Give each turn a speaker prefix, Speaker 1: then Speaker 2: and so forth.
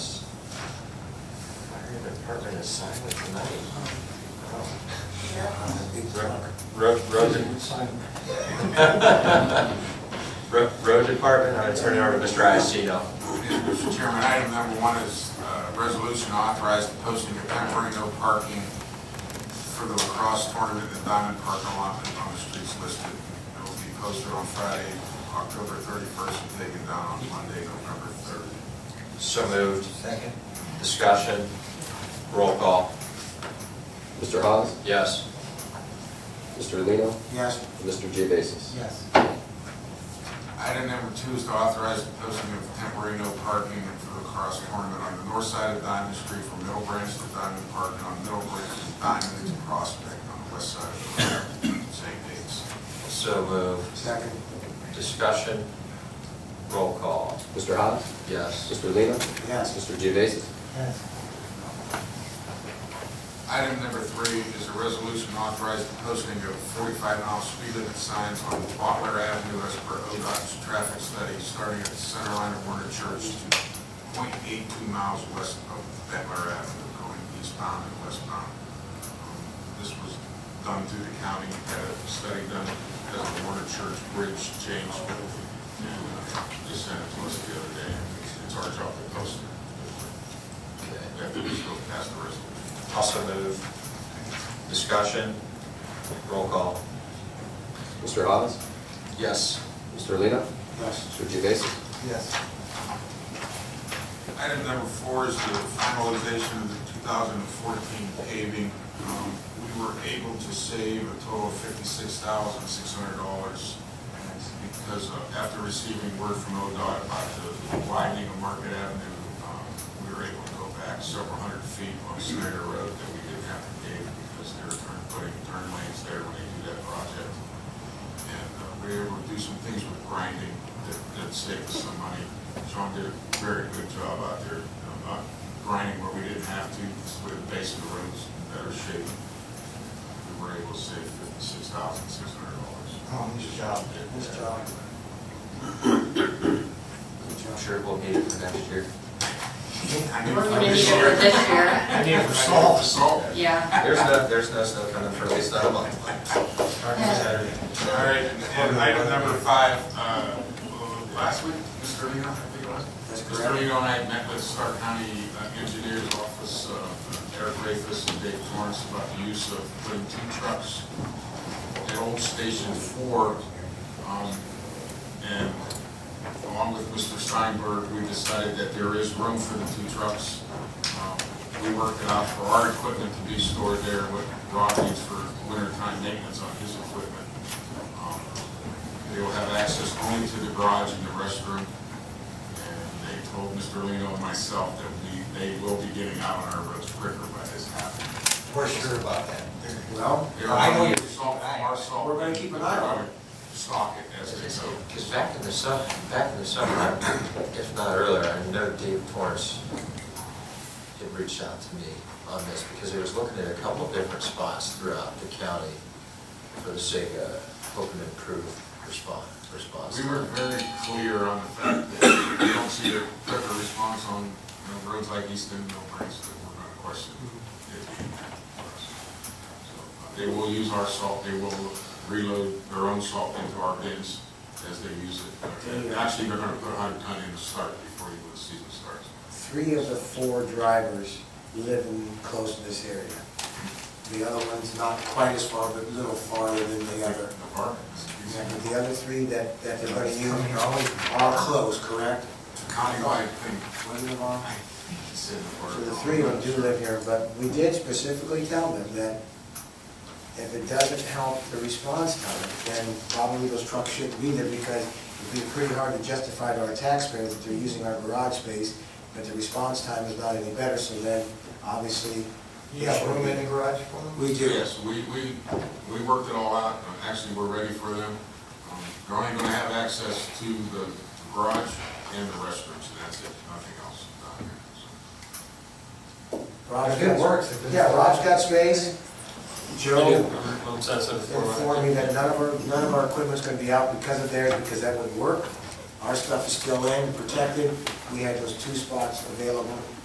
Speaker 1: department assignment tonight. Oh, Big drunk.
Speaker 2: Road, road, road, road department, I'm gonna turn it over to Mr. Iacino.
Speaker 3: Mr. Chairman, item number one is uh, resolution authorizing posting of temporary no parking for the lacrosse tournament at Diamond Park allotment on the streets listed. It will be posted on Friday, October 31st, and taken down on Monday, November 3rd.
Speaker 2: So moved. Second. Discussion, roll call,
Speaker 4: Mr. Hawes?
Speaker 2: yes.
Speaker 4: Mr. Lino?
Speaker 3: Yes.
Speaker 4: and Mr. Geovasis?
Speaker 3: Yes. Item number two is to authorize the posting of temporary no parking for the lacrosse tournament on the north side of Diamond Street from Middle Branch to Diamond Park, and on Middle Branch to Diamond to Prospect on the west side of the park, same dates.
Speaker 2: So moved.
Speaker 3: Second.
Speaker 2: Discussion, roll call,
Speaker 4: Mr. Hawes?
Speaker 2: yes.
Speaker 4: Mr. Lino?
Speaker 3: Yes.
Speaker 4: Mr. Geovasis?
Speaker 3: Item number three is a resolution authorizing the posting of 45 mile speed limit signs on Butler Avenue as per ODOT's traffic study, starting at the center line of Warner Church to .82 miles west of Butler Avenue, going eastbound and westbound. Um, This was done through the county, had a study done at the Warner Church Bridge changed, but uh, just sent it to us the other day. It's our job to post it.
Speaker 2: Okay.
Speaker 3: After this, we'll pass the resolution.
Speaker 2: Also moved. Discussion, roll call,
Speaker 4: Mr. Hawes?
Speaker 2: yes.
Speaker 4: Mr. Lino?
Speaker 3: Yes.
Speaker 4: Mr. Geovasis?
Speaker 1: Yes.
Speaker 3: Item number four is the finalization of the 2014 paving. Um, We were able to save a total of $56,600 because uh, after receiving word from ODOT about the widening of Market Avenue, um, we were able to go back several hundred feet on Snyder Road that we didn't have to pave because they were turn- putting turn lanes there when they do that project. And uh, we were able to do some things with grinding that, that saved us some money. Sean did a very good job out there, um, uh, grinding where we didn't have to, with the base of the roads in better shape. We were able to save fifty-six thousand, six hundred dollars.
Speaker 1: Oh, nice job, nice job. Good
Speaker 2: I'm
Speaker 1: job.
Speaker 2: sure we'll need it for next year.
Speaker 3: I knew
Speaker 5: We're
Speaker 3: for
Speaker 5: gonna need it
Speaker 3: this
Speaker 5: for
Speaker 3: year.
Speaker 5: this year,
Speaker 1: I need
Speaker 3: I
Speaker 1: it
Speaker 3: knew
Speaker 1: for salt.
Speaker 3: salt.
Speaker 5: yeah.
Speaker 2: There's no, there's no snow coming for at least another month. Starting Saturday.
Speaker 3: All right, and and item number five, uh, uh, last week, Mr. Reno, I think it was.
Speaker 1: That's
Speaker 3: Mr. Reno and I met with Stark County uh, Engineers Office, uh, Eric Rafus and Dave Torrance about the use of putting two trucks at old Station Four. um, And along with Mr. Steinberg, we decided that there is room for the two trucks. Um, We worked it out for our equipment to be stored there, what Rob needs for wintertime maintenance on his equipment. Um, They will have access only to the garage and the restroom. And they told Mr. Lino and myself that we, they will be getting out on our roads quicker by this happening.
Speaker 1: We're sure about that.
Speaker 6: Well,
Speaker 3: They
Speaker 6: I
Speaker 3: are
Speaker 6: know,
Speaker 3: going to salt, our salt.
Speaker 6: We're gonna keep an eye on it.
Speaker 3: Stock it as they go.
Speaker 2: Because back in the summer, back in the summer, if not earlier, I know Dave Torrance had reached out to me on this, because he was looking at a couple of different spots throughout the county for the sake of hoping to improve response, response.
Speaker 3: We were very clear on the fact that we don't see a quicker response on, you know, roads like Easton, Mill Branch, that we're gonna question. it being that for us. So, uh, They will use our salt, they will reload their own salt into our bins as they use it. And Actually, they're gonna put a hundred ton in to start before even the season starts.
Speaker 6: three of the four drivers live in close to this area. The other one's not quite as far, but a little farther than the other.
Speaker 3: The bar,
Speaker 6: Yeah, but the other three that, that they're gonna use are all close, correct?
Speaker 3: it's a countywide thing.
Speaker 6: One of them are.
Speaker 3: It's in the bar.
Speaker 6: So the three of them do live here, but we did specifically tell them that if it doesn't help the response time, then probably those trucks shouldn't be there because it'd be pretty hard to justify to our taxpayers that they're using our garage space, but the response time is not any better, so then obviously.
Speaker 1: You have room in the garage for them?
Speaker 6: We do.
Speaker 3: Yes, we, we, we worked it all out, and actually, we're ready for them. Um, They're only gonna have access to the garage and the restrooms, and that's it, nothing else down here. so.
Speaker 6: Rob's
Speaker 1: If it
Speaker 6: got-
Speaker 1: works, if it's-
Speaker 6: Yeah, Rob's got space. Joe informed me
Speaker 2: Inform
Speaker 6: that none of our, none of our equipment's gonna be out because of theirs, because that wouldn't work. Our stuff is still in, protected. We had those two spots available.